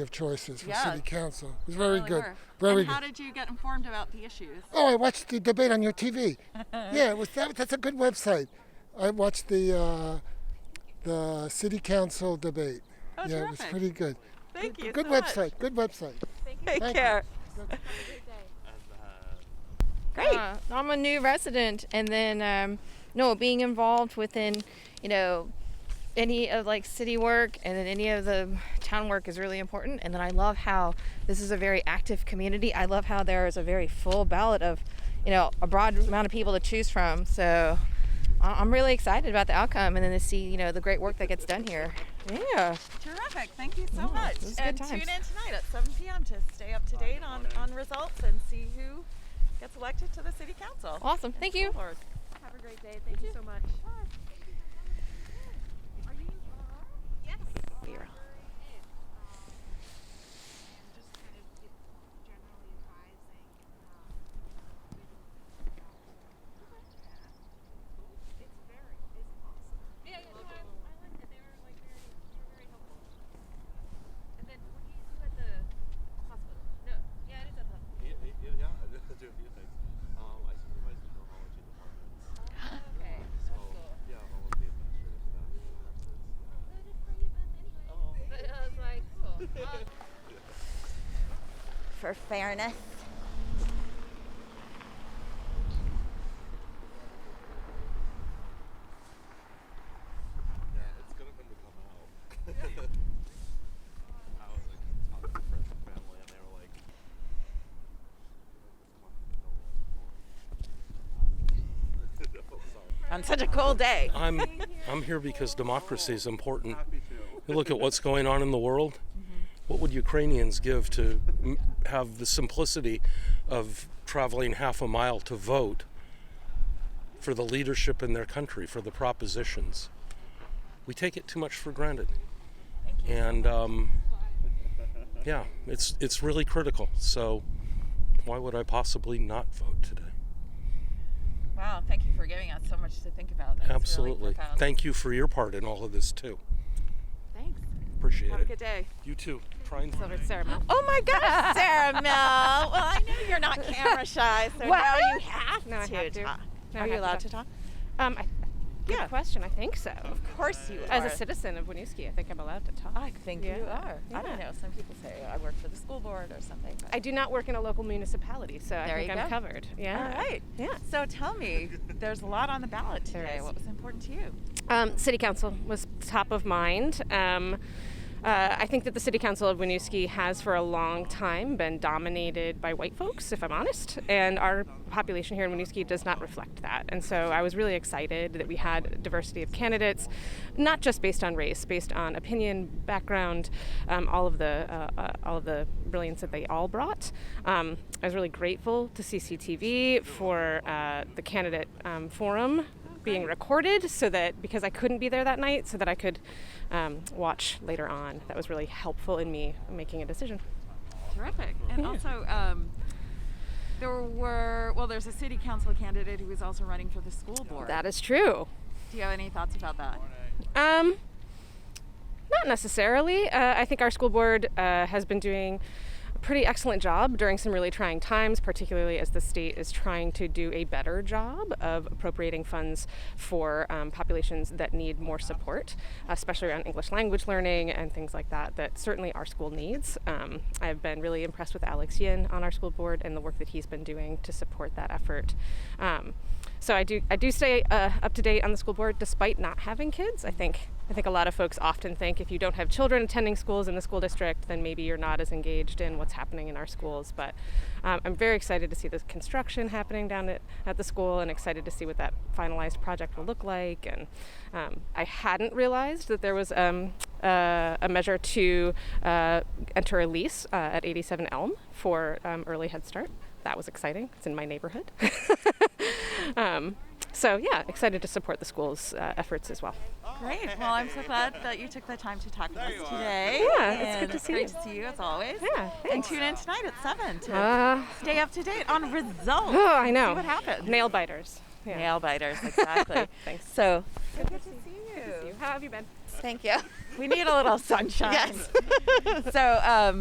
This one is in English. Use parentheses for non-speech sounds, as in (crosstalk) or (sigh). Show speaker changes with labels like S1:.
S1: of choices for
S2: Yeah.
S1: city council. It was very
S2: Really
S1: good.
S2: were.
S1: Very
S2: and how
S1: good.
S2: did you get informed about the issues?
S1: oh, I watched the debate on your
S2: (laughs)
S1: TV. yeah, it was that, that's a good website. I watched the uh, the city council debate.
S2: Oh,
S1: yeah, it was
S2: terrific.
S1: pretty good.
S2: Thank you.
S1: Good
S2: so much.
S1: website. Good website.
S2: Take
S1: Thank you.
S2: care. Great.
S3: Yeah, (laughs) I'm a new resident, and then um, no, being involved within, you know, any of like city work and then any of the town work is really important. And then I love how this is a very active community. I love how there is a very full ballot of, you know, a broad amount of people to choose from. So I- I'm really excited about the outcome, and then to see you know the great work that gets done here. Yeah.
S2: Terrific. Thank you
S1: Oh,
S2: so much.
S3: this is good
S2: And
S3: times.
S2: tune in tonight at 7 p.m. to stay up to date on, on results and see who gets elected to the city council.
S3: Awesome. Thank you.
S2: Lord.
S4: Have a great day. Thank you so much.
S5: Yeah, yeah, yeah, I do a few things. Um, I supervise the neurology department. (laughs) Okay. So, yeah, all of the administrative stuff. Oh, (laughs)
S6: for fairness.
S5: yeah, it's good of him to come out. (laughs) I was like talking to friends and family, and they were like, no, sorry.
S2: On such a cold day.
S7: I'm I'm here because democracy is important.
S5: Happy to.
S7: You look at what's going on in the world. What would Ukrainians give to m- have the simplicity of traveling half a mile to vote for the leadership in their country, for the propositions? We take it too much for granted. And um, yeah, it's it's really critical. So why would I possibly not vote today?
S2: Wow. Thank you for giving us so much to think about. That's really
S7: Absolutely.
S2: profound.
S7: Thank you for your part in all of this too.
S2: Thanks.
S7: Appreciate
S2: Have a
S7: it.
S2: good day.
S7: You too. Try and
S2: Oh my gosh, Sarah Mel. Well, I know you're not camera shy, so
S3: What?
S2: now you have
S3: No, I
S2: to
S3: have to.
S2: talk.
S3: No, I
S2: Are you
S3: have to
S2: allowed
S3: talk.
S2: to talk?
S3: Um, I, good
S2: Yeah.
S3: question. I think so.
S2: Of course you
S3: As
S2: are. Oh,
S3: a citizen of Winooski, I think I'm allowed to talk.
S2: I think you
S3: Yeah.
S2: are. I don't know. Some people say I work for the school board or something. But.
S3: I do not work in a local municipality, so
S2: There
S3: I think
S2: you go.
S3: I'm covered.
S2: All
S3: Yeah.
S2: right.
S3: Yeah.
S2: So tell me, there's a lot on the ballot
S3: There
S2: today.
S3: is.
S2: What was important to you?
S3: Um, city council was top of mind. Um, uh, I think that the city council of Winooski has for a long time been dominated by white folks, if I'm honest, and our population here in Winooski does not reflect that. And so I was really excited that we had diversity of candidates, not just based on race, based on opinion, background, um, all of the uh, uh, all of the brilliance that they all brought. Um, I was really grateful to CCTV for uh, the candidate um, forum being recorded so that because I couldn't be there that night, so that I could um, watch later on. That was really helpful in me making a decision.
S2: Terrific. And also, um, there were well, there's a city council candidate who is also running for the school board.
S3: That is true.
S2: Do you have any thoughts about that?
S3: Um, not necessarily. Uh, I think our school board uh, has been doing a pretty excellent job during some really trying times, particularly as the state is trying to do a better job of appropriating funds for um, populations that need more support, especially around English language learning and things like that, that certainly our school needs. Um, I've been really impressed with Alex Yin on our school board and the work that he's been doing to support that effort. Um, so I do I do stay uh, up to date on the school board despite not having kids. I think I think a lot of folks often think if you don't have children attending schools in the school district, then maybe you're not as engaged in what's happening in our schools. But um, I'm very excited to see this construction happening down at, at the school, and excited to see what that finalized project will look like. And um, I hadn't realized that there was um, uh, a measure to uh, enter a lease uh, at 87 Elm for um, early Head Start. That was exciting. It's in my neighborhood. (laughs) Um, so yeah, excited to support the school's uh, efforts as well.
S2: Great. Well, I'm so glad that you took the time to talk with us today.
S3: Yeah, it's good
S2: And
S3: to see
S2: great
S3: you.
S2: to see you as always.
S3: Yeah,
S2: And
S3: thanks.
S2: tune in tonight at seven to
S3: Uh,
S2: stay up to date on
S3: (gasps)
S2: results.
S8: (laughs)
S3: oh, I know.
S2: See what happened.
S3: Nail biters. Yeah. (laughs)
S2: Nail biters, exactly.
S3: Thanks.
S2: So
S3: How have you been?
S9: Thank you.
S8: We need a little sunshine.
S9: Yes.
S8: So, um,